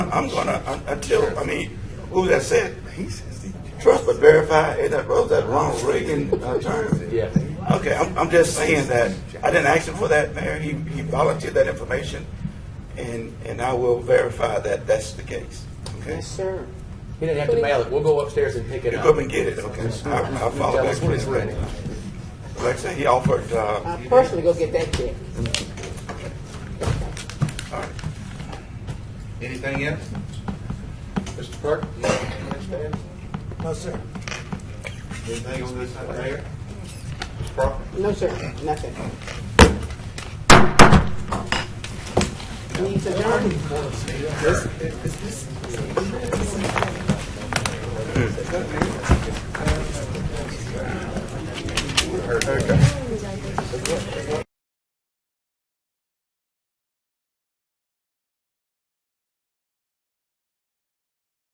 I'm gonna un- until I mean, who that said? Trust but verify. Is that was that Ronald Reagan uh, term? Yeah. Okay, I'm, I'm just saying that I didn't ask him for that, Mayor. He, he volunteered that information, and and I will verify that that's the case. Okay, Yes, sir. He didn't have to mail it. We'll go upstairs and pick it you up. go up and get it. Okay, I'll, I'll follow Tell back. us when it's ready. Like I said, he offered. Uh, I'll personally go get that check. all right. Anything else? Mr. Clerk? No, sir. Anything on this side there? Mr. Crawford? No, sir, nothing. Needs adjourned.